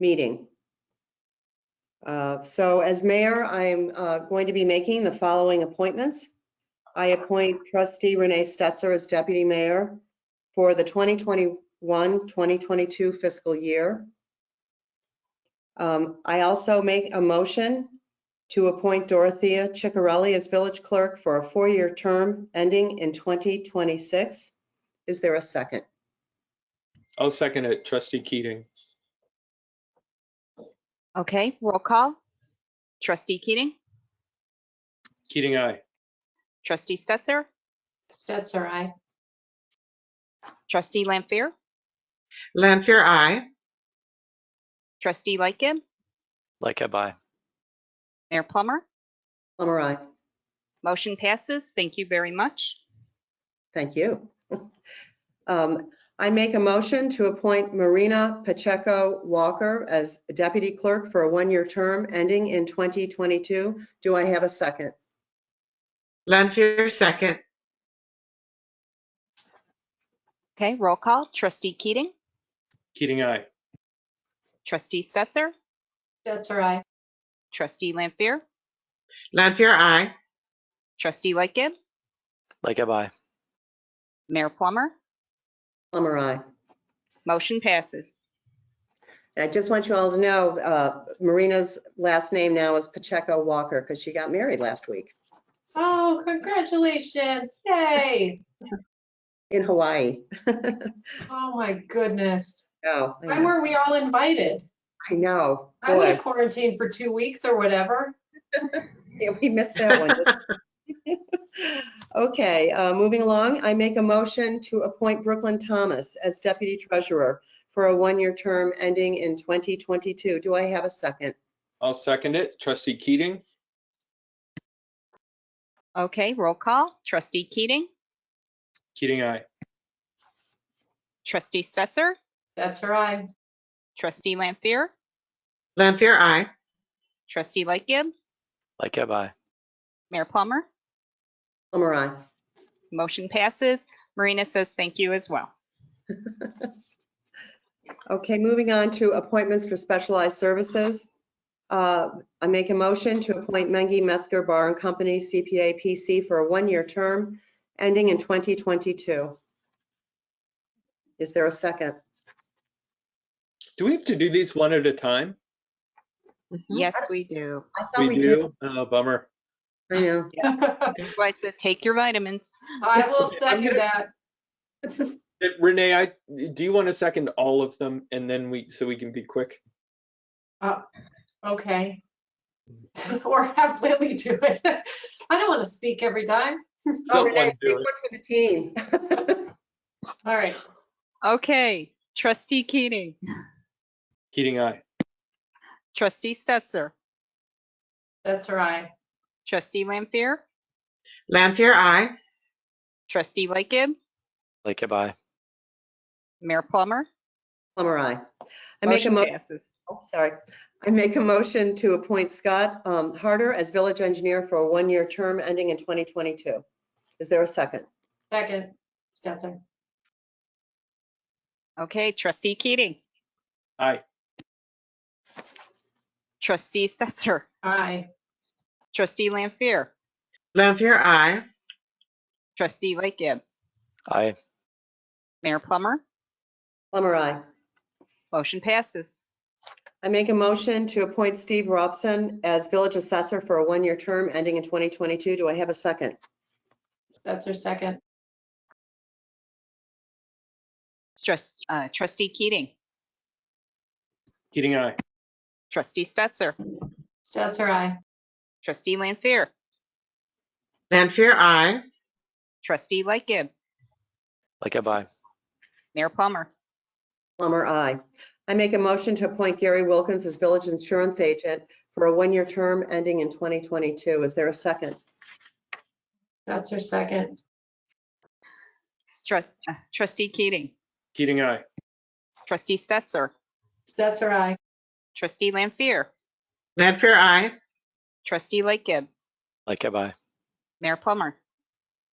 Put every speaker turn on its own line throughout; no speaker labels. meeting. Uh, So as mayor, I am uh, going to be making the following appointments. I appoint trustee Renee Stetzer as deputy mayor for the 2021-2022 fiscal year. Um, I also make a motion to appoint Dorothea Ciccarelli as village clerk for a four-year term ending in 2026. Is there a second?
I'll second it, trustee Keating.
Okay, roll call. Trustee Keating,
Keating, aye.
trustee Stetser,
Stetser, aye.
trustee Lampier,
Lampier, I.
trustee Lightgib,
Like I buy.
Mayor Plummer.
Plummer, I.
Motion passes. Thank you very much.
Thank you. Um, I make a motion to appoint Marina Pacheco Walker as deputy clerk for a one-year term ending in 2022. Do I have a second?
Lampier, second.
Okay, roll call. Trustee Keating,
Keating, aye.
trustee Stetser,
Stetser, aye.
trustee Lampier,
Lampier, I.
trustee Lightgib,
Like I buy.
Mayor Plummer.
Plummer, I.
Motion passes.
I just want you all to know, uh, Marina's last name now is Pacheco Walker because she got married last week
Oh, congratulations. Yay.
in Hawaii.
Oh, my goodness.
Oh, I
Why
know.
were we all invited?
I know.
I would
Boy,
have quarantined for two weeks or whatever.
yeah, we missed that one. didn't we? Okay, uh, moving along, I make a motion to appoint Brooklyn Thomas as deputy treasurer for a one-year term ending in 2022. Do I have a second?
I'll second it, trustee Keating.
Okay, roll call. Trustee Keating,
Keating, aye.
trustee Stetser,
Stetser, aye.
trustee Lampier,
Lampier, I.
trustee Lightgib,
Like I buy.
Mayor Plummer.
Plummer, I.
Motion passes. Marina says thank you as well.
Okay, moving on to appointments for specialized services. Uh, I make a motion to appoint Mengi Metzger Bar and Company CPA PC for a one-year term ending in 2022. Is there a second?
Do we have to do these one at a time?
Yes, we do.
I thought we did.
do? Oh, bummer.
I know.
I said, take your vitamins.
I will second that.
Eh, Renee, I, do you want to second all of them and then we, so we can be quick?
Okay. Or have Lily do it. I don't want to speak every time.
Oh,
Someone
Renee, be
do it.
quick for the team.
All right.
Okay, trustee Keating,
Keating, aye.
trustee Stetser,
Stetser, aye.
trustee Lampier,
Lampier, I.
trustee Lightgib,
Like I buy.
Mayor Plummer.
Plummer, I. I make a
Motion
mo,
passes.
oh, sorry. I make a motion to appoint Scott um, Harder as village engineer for a one-year term ending in 2022. Is there a second?
Second, Stetser.
Okay, trustee Keating,
Aye.
trustee Stetser,
Aye.
trustee Lampier,
Lampier, I.
trustee Lightgib,
I.
Mayor Plummer.
Plummer, I.
Motion passes.
I make a motion to appoint Steve Robson as village assessor for a one-year term ending in 2022. Do I have a second?
Stetser, second.
Trust, uh, trustee Keating,
Keating, aye.
trustee Stetser,
Stetser, aye.
trustee Lampier,
Lampier, I.
trustee Lightgib,
Like I buy.
Mayor Plummer.
Plummer, I. I make a motion to appoint Gary Wilkins as village insurance agent for a one-year term ending in 2022. Is there a second?
Stetser, second.
Strut- uh, Trustee Keating,
Keating, aye.
trustee Stetser,
Stetser, aye.
trustee Lampier,
Lampier, I.
trustee Lightgib,
Like I buy.
Mayor Plummer.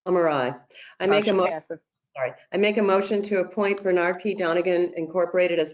Plummer, I. I make a
Motion
mo,
passes.
sorry. I make a motion to appoint Bernard P. Donigan Incorporated as